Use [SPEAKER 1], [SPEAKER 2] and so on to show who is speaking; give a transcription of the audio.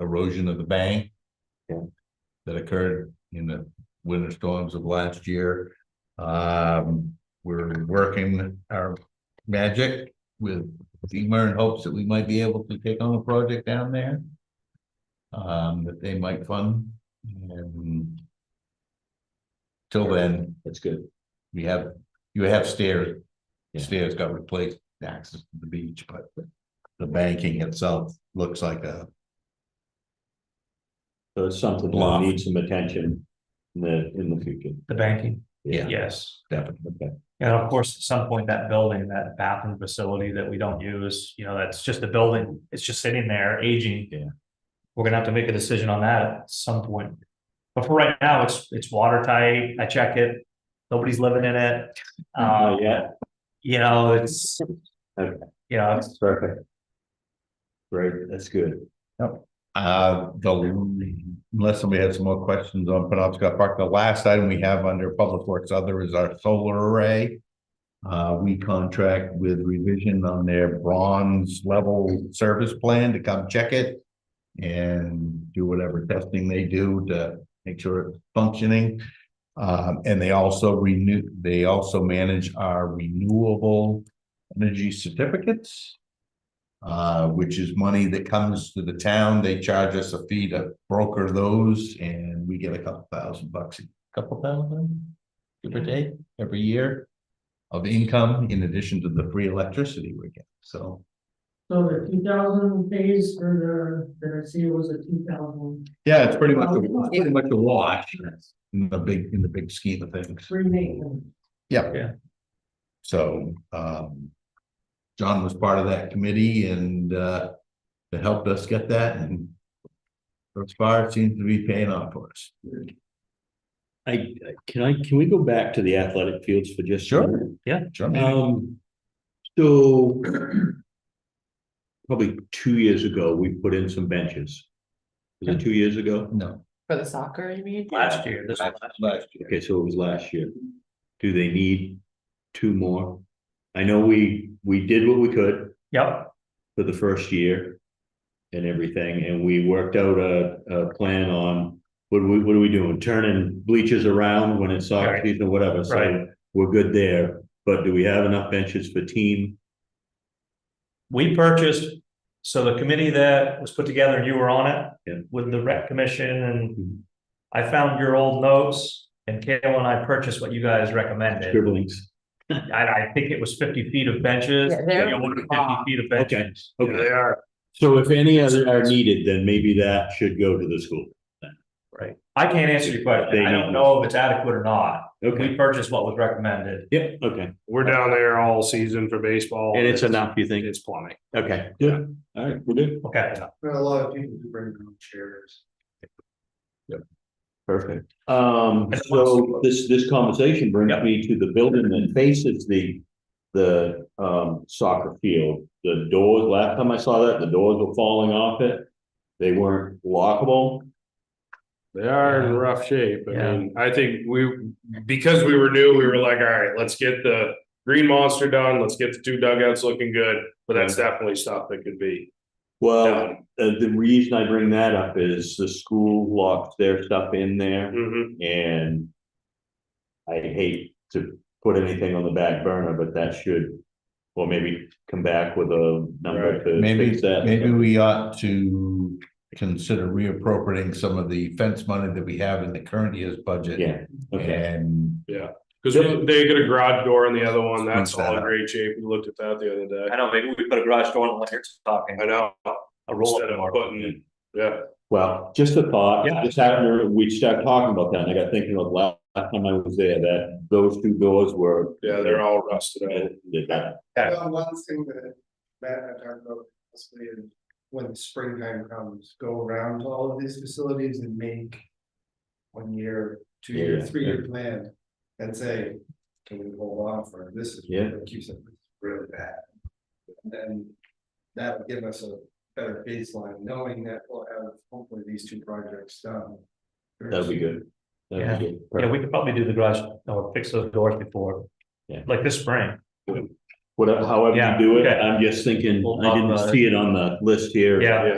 [SPEAKER 1] erosion of the bank.
[SPEAKER 2] Yeah.
[SPEAKER 1] That occurred in the winter storms of last year. Um, we're working our magic with FEMA in hopes that we might be able to take on a project down there. Um, that they might fund and. Till then,
[SPEAKER 2] That's good.
[SPEAKER 1] we have, you have stairs.
[SPEAKER 2] Yeah.
[SPEAKER 1] Stairs got replaced, access to the beach, but the banking itself looks like a,
[SPEAKER 2] So it's something that
[SPEAKER 1] Block.
[SPEAKER 2] needs some attention in the, in the future.
[SPEAKER 3] The banking,
[SPEAKER 1] yeah,
[SPEAKER 3] yes.
[SPEAKER 1] definitely.
[SPEAKER 2] Okay,
[SPEAKER 3] And of course, at some point, that building, that bathroom facility that we don't use, you know, that's just a building, it's just sitting there aging.
[SPEAKER 2] Yeah.
[SPEAKER 3] We're gonna have to make a decision on that at some point. But for right now, it's, it's watertight, I check it, nobody's living in it. Uh,
[SPEAKER 2] Not yet.
[SPEAKER 3] you know, it's,
[SPEAKER 2] Okay.
[SPEAKER 3] you know, it's-
[SPEAKER 2] perfect. Great, that's good.
[SPEAKER 1] Uh, the, unless somebody has some more questions on Penobscot Park, the last item we have under Public Works Other is our solar array. Uh, we contract with revision on their bronze level service plan to come check it. And do whatever testing they do to make sure it's functioning. Um, and they also renew, they also manage our renewable energy certificates uh, which is money that comes to the town. They charge us a fee to broker those and we get a couple thousand bucks, a couple thousand, give or take, every year of income in addition to the free electricity we get. So
[SPEAKER 4] So the two thousand pays for the, that I see was a two thousand,
[SPEAKER 1] yeah, it's pretty much, a- it's pretty much a wash in the big, in the big scheme of things.
[SPEAKER 4] free maintenance.
[SPEAKER 1] So, um, John was part of that committee and, uh, that helped us get that and thus far it seems to be paying off for us.
[SPEAKER 2] I, I- can I, can we go back to the athletic fields for just? a
[SPEAKER 1] Sure.
[SPEAKER 2] minute?
[SPEAKER 1] Sure,
[SPEAKER 4] Uh,
[SPEAKER 1] man.
[SPEAKER 2] Um, so probably two years ago, we put in some benches. Was it two years ago?
[SPEAKER 1] No.
[SPEAKER 5] For the soccer, you mean?
[SPEAKER 3] last year, this was last year.
[SPEAKER 1] Last year.
[SPEAKER 2] Okay, so it was last year. Do they need two more? I know we, we did what we could
[SPEAKER 3] Yep,
[SPEAKER 2] for the first year and everything, and we worked out a, a plan on what we, what are we doing? Turning bleachers around when it's soccer
[SPEAKER 3] Right.
[SPEAKER 2] season or whatever, so
[SPEAKER 3] Right.
[SPEAKER 2] we're good there. But do we have enough benches for team?
[SPEAKER 3] we purchased, so the committee that was put together, and you were on it.
[SPEAKER 2] Yeah.
[SPEAKER 3] With the rec commission and
[SPEAKER 2] Mhm.
[SPEAKER 3] I found your old notes and Kayla and I purchased what you guys recommended.
[SPEAKER 2] Scribblings.
[SPEAKER 3] I, I think it was fifty feet of benches.
[SPEAKER 5] Yeah, they're-
[SPEAKER 3] You ordered Fifty feet of benches.
[SPEAKER 2] Okay, okay.
[SPEAKER 3] They are.
[SPEAKER 2] So if any other are needed, then maybe that should go to the school.
[SPEAKER 3] Right. I can't answer your
[SPEAKER 2] They
[SPEAKER 3] question. I
[SPEAKER 2] need-
[SPEAKER 3] don't know if it's adequate or not.
[SPEAKER 2] Okay,
[SPEAKER 3] We purchased what was recommended.
[SPEAKER 2] yep, okay.
[SPEAKER 6] We're down there all season for baseball.
[SPEAKER 2] And it's enough, you think?
[SPEAKER 6] It's plumbing.
[SPEAKER 2] Okay, good. All right, we're good.
[SPEAKER 3] Okay.
[SPEAKER 6] There are a lot of people who bring their own chairs.
[SPEAKER 2] Perfect. Um, so this, this conversation brings
[SPEAKER 3] Yep.
[SPEAKER 2] me to the building that faces the, the, um, soccer field. The doors, last time I saw that, the doors were falling off it. They weren't lockable.
[SPEAKER 6] They are in rough shape. I
[SPEAKER 3] Yeah.
[SPEAKER 6] mean, I think we, because we were new, we were like, all right, let's get the green monster done. Let's get the two dugouts looking good. But that's definitely stuff that could be
[SPEAKER 2] Well,
[SPEAKER 6] done.
[SPEAKER 2] uh, the reason I bring that up is the school locks their stuff in there.
[SPEAKER 6] Mhm.
[SPEAKER 1] Mm-hmm.
[SPEAKER 2] And I hate to put anything on the back burner, but that should, or maybe come back with a number to
[SPEAKER 1] Maybe,
[SPEAKER 2] fix that.
[SPEAKER 1] maybe we ought to consider reappropriating some of the fence money that we have in the current year's budget.
[SPEAKER 2] Yeah, okay,
[SPEAKER 1] And
[SPEAKER 6] Cause we- they get a garage door in the other one. That's
[SPEAKER 1] Squeeze that
[SPEAKER 6] all in
[SPEAKER 1] out.
[SPEAKER 6] great shape. We looked at that the other day.
[SPEAKER 3] I know, maybe we put a garage door on when you're talking.
[SPEAKER 6] I know.
[SPEAKER 3] A roll
[SPEAKER 6] Instead
[SPEAKER 3] up
[SPEAKER 6] of
[SPEAKER 3] door.
[SPEAKER 6] putting, yeah,
[SPEAKER 2] well, just a thought,
[SPEAKER 3] Yeah.
[SPEAKER 2] just after we started talking about that, and I got thinking of last last time I was there, that those two doors were.
[SPEAKER 6] yeah, they're all rusted out.
[SPEAKER 2] They got-
[SPEAKER 7] Well, one thing that Matt and I talked about possibly is when springtime comes, go around to all of these facilities and make. One year, two
[SPEAKER 2] Yeah,
[SPEAKER 7] year, three year plan and say, can we hold on for this is
[SPEAKER 2] Yeah.
[SPEAKER 7] what keeps it really bad. And then that would give us a better baseline, knowing that we'll have hopefully these two projects done.
[SPEAKER 2] That'd be good. That'd be good.
[SPEAKER 3] Yeah, we could probably do the garage, or fix those doors before.
[SPEAKER 2] Yeah.
[SPEAKER 3] Like this spring.
[SPEAKER 2] Whatever, however
[SPEAKER 3] Yeah,
[SPEAKER 2] you do it,
[SPEAKER 3] okay.
[SPEAKER 2] I'm just thinking,
[SPEAKER 3] We'll
[SPEAKER 2] I
[SPEAKER 3] talk about
[SPEAKER 2] didn't
[SPEAKER 3] it.
[SPEAKER 2] see it on the list here.
[SPEAKER 3] Yeah.
[SPEAKER 6] Yeah.